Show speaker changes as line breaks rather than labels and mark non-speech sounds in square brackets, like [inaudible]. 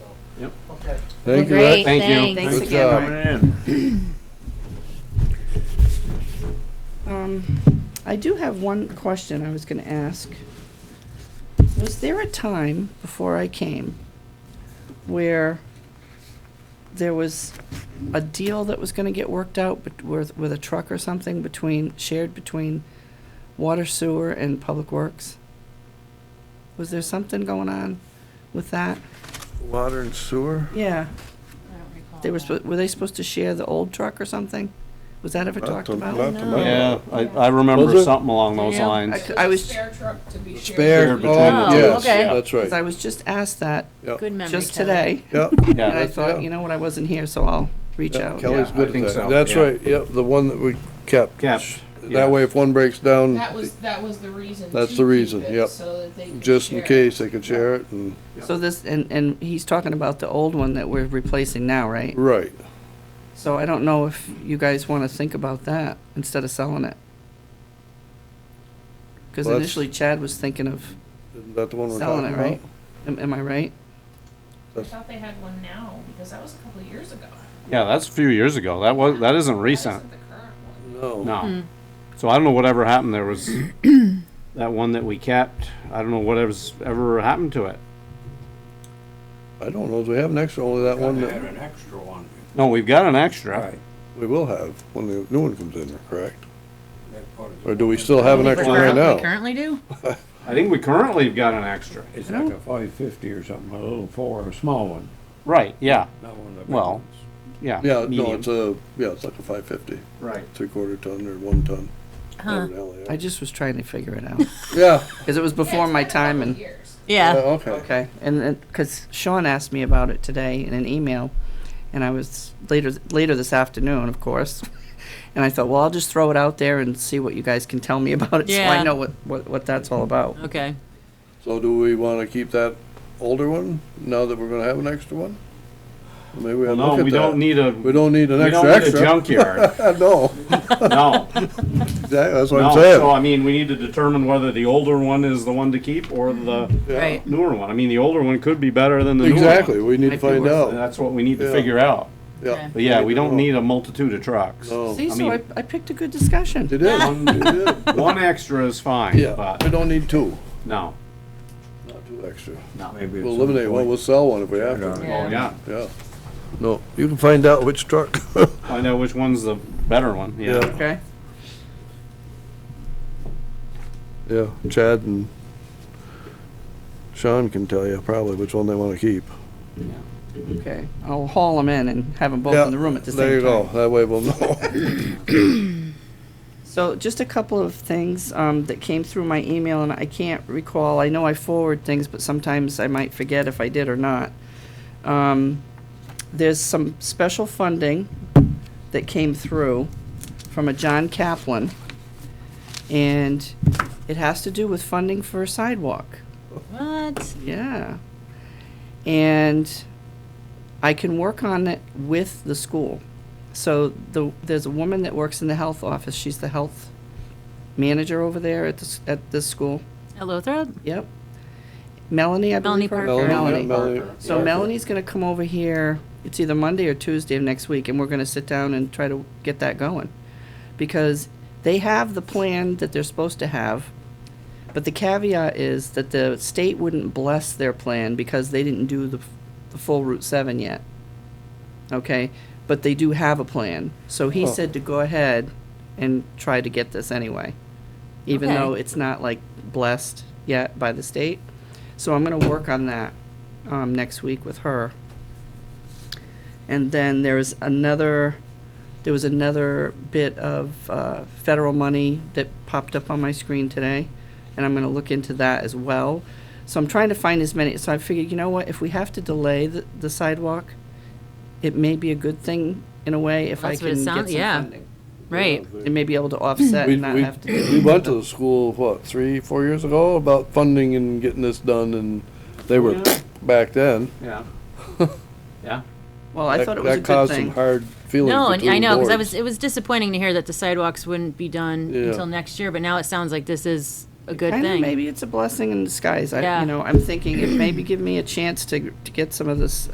Yep.
Okay.
Thank you,
Great,
Rick.
Thank you.
thanks.
Thanks
Good
again,
job.
Rick.
Coming in.
Um, I do have one question I was going to ask. Was there a time before I came where there was a deal that was going to get worked out bet- with, with a truck or something between, shared between water, sewer, and public works? Was there something going on with that?
Water and sewer?
Yeah,
I don't recall
they were,
that.
suppo- were they supposed to share the old truck or something? Was that ever
Not
talked
to-
about?
not to
No.
my-
Yeah, I, I remember
Was it?
something along those
I
Yeah.
lines.
c- I was,
Spare truck to be shared.
Shared
Spare,
between
the
oh,
two.
yes,
Okay.
that's
'cause I
right.
was just asked that
Good memory.
just
Kelly.
today.
Yep,
And I
Yeah,
[laughs] Yeah.
thought, you know what, I wasn't here, so I'll reach
yeah,
out.
Kelly's
Yeah, I
good
think
at
so,
that. That's
yeah.
right, yep, the one that we kept.
Kept, yeah.
That way if one breaks down,
That was, that was the reason.
That's
to
the
keep
reason,
it,
yep.
So that they could
just in
share.
case, they could share it and,
So this, and, and he's talking about the old one that we're replacing now, right?
right.
So I don't know if you guys want to think about that instead of selling it. Because
Well, that's-
initially Chad was thinking of
Isn't that the one we're
selling
talking
it,
about?
right? Am, am I right?
I thought they had one now, because that was a couple of years ago.
yeah, that's a few years ago. That was, that isn't
That
recent,
isn't the current one.
No,
Hmm.
no. So I don't know whatever happened. There
[clears throat]
was that one that we kept. I don't know whatever's ever happened to it.
I don't know, do we have an extra, only that one that
an extra one.
No, we've got an extra.
we will have when the new one comes in, correct?
That part is-
Or do we still have an
Think we
extra right
currently- we
now?
Currently do?
I think we currently have got an extra.
It's like a five fifty or something, a little four, a small one,
Right, yeah,
not one of the big
Well,
ones.
yeah.
Yeah, no,
medium.
it's a, yeah, it's like a five fifty,
Right.
three quarter ton or one ton. whatever the hell they are.
I just was trying to figure it out.
Yeah,
Because it was
Yeah,
before
it's
my
been a couple
time
of
and,
years.
yeah,
Yeah.
okay.
okay. And, and, because Sean asked me about it today in an email. And I was later, later this afternoon, of course. [laughs] And I thought, well, I'll just throw it out there and see what you guys can tell me [laughs] about it. So I
Yeah.
know what, what, what that's all about.
Okay.
So do we wanna keep that older one now that we're gonna have an extra one? Maybe we
Well,
have to
no,
look at
we don't
that.
need a,
We
we
don't need an
don't need
extra
a
extra.
junkyard.
[laughs] No,
No,
exactly, that's what
no.
I'm
So
saying.
I mean, we need to determine whether the older one is the one to keep or the
Yeah,
Right.
newer one. I mean, the older one could be better than the newer one.
Exactly, we need to
Might be
find
worth
And
out.
That's what we need to
Yeah.
figure out.
Yeah.
But yeah, we don't
No.
need a multitude of trucks.
No.
See,
I
so I,
mean-
I picked a good discussion.
It is, it is.
One extra is fine,
Yeah, we
but
don't need two,
no,
not two extra.
no.
Maybe at
We'll
some
eliminate one,
point-
we'll sell one if we have to,
Oh, yeah.
yeah. No, you can find out which truck. [laughs]
Find out which one's the better one. Yeah.
Yeah.
Okay.
Yeah, Chad and Sean can tell you probably which one they wanna keep.
Okay. I'll haul them in and have them both
Yeah,
in the room at the same
There you
time.
go, that way we'll
[laughs]
know.
So just a couple of things um, that came through my email, and I can't recall. I know I forward things, but sometimes I might forget if I did or not. Um, there's some special funding that came through from a John Kaplan, and it has to do with funding for a sidewalk.
What?
Yeah. And I can work on it with the school. So the, there's a woman that works in the health office. She's the health manager over there at this, at this school.
Hello, Thread?
Yep. Melanie, I believe.
Melanie
her-
Parker.
Melanie,
Melanie.
Melanie.
So Melanie's gonna come over here, it's either Monday or Tuesday of next week, and we're gonna sit down and try to get that going. Because they have the plan that they're supposed to have, but the caveat is that the state wouldn't bless their plan because they didn't do the, f- the full Route seven yet. Okay, but they do have a plan, so he
Huh.
said to go ahead and try to get this anyway. Even
Okay.
though it's not like blessed yet by the state, so I'm gonna work on that um, next week with her. And then there's another, there was another bit of uh, federal money that popped up on my screen today, and I'm going to look into that as well. So I'm trying to find as many. So I figured, you know what, if we have to delay the, the sidewalk, it may be a good thing in a way if I
That's
can
what it
get some
sound- yeah.
funding.
Right.
And may be able to offset
We,
and not
we,
have to. do
we went to the school, what, three, four years ago about funding and getting this done and they were
Yeah.
back then.
Yeah.
[laughs]
Yeah.
Well, I
That-
thought it was a
That caused
good
some
thing.
hard feelings
No, and I
between
know, because I
boards.
was, it was disappointing to hear that the sidewalks wouldn't be done
Yeah.
until next year, but now it sounds like this is a good
Kinda
thing.
Maybe it's a blessing in disguise. I,
Yeah.
you know, I'm thinking it maybe give me a chance to, to get some of this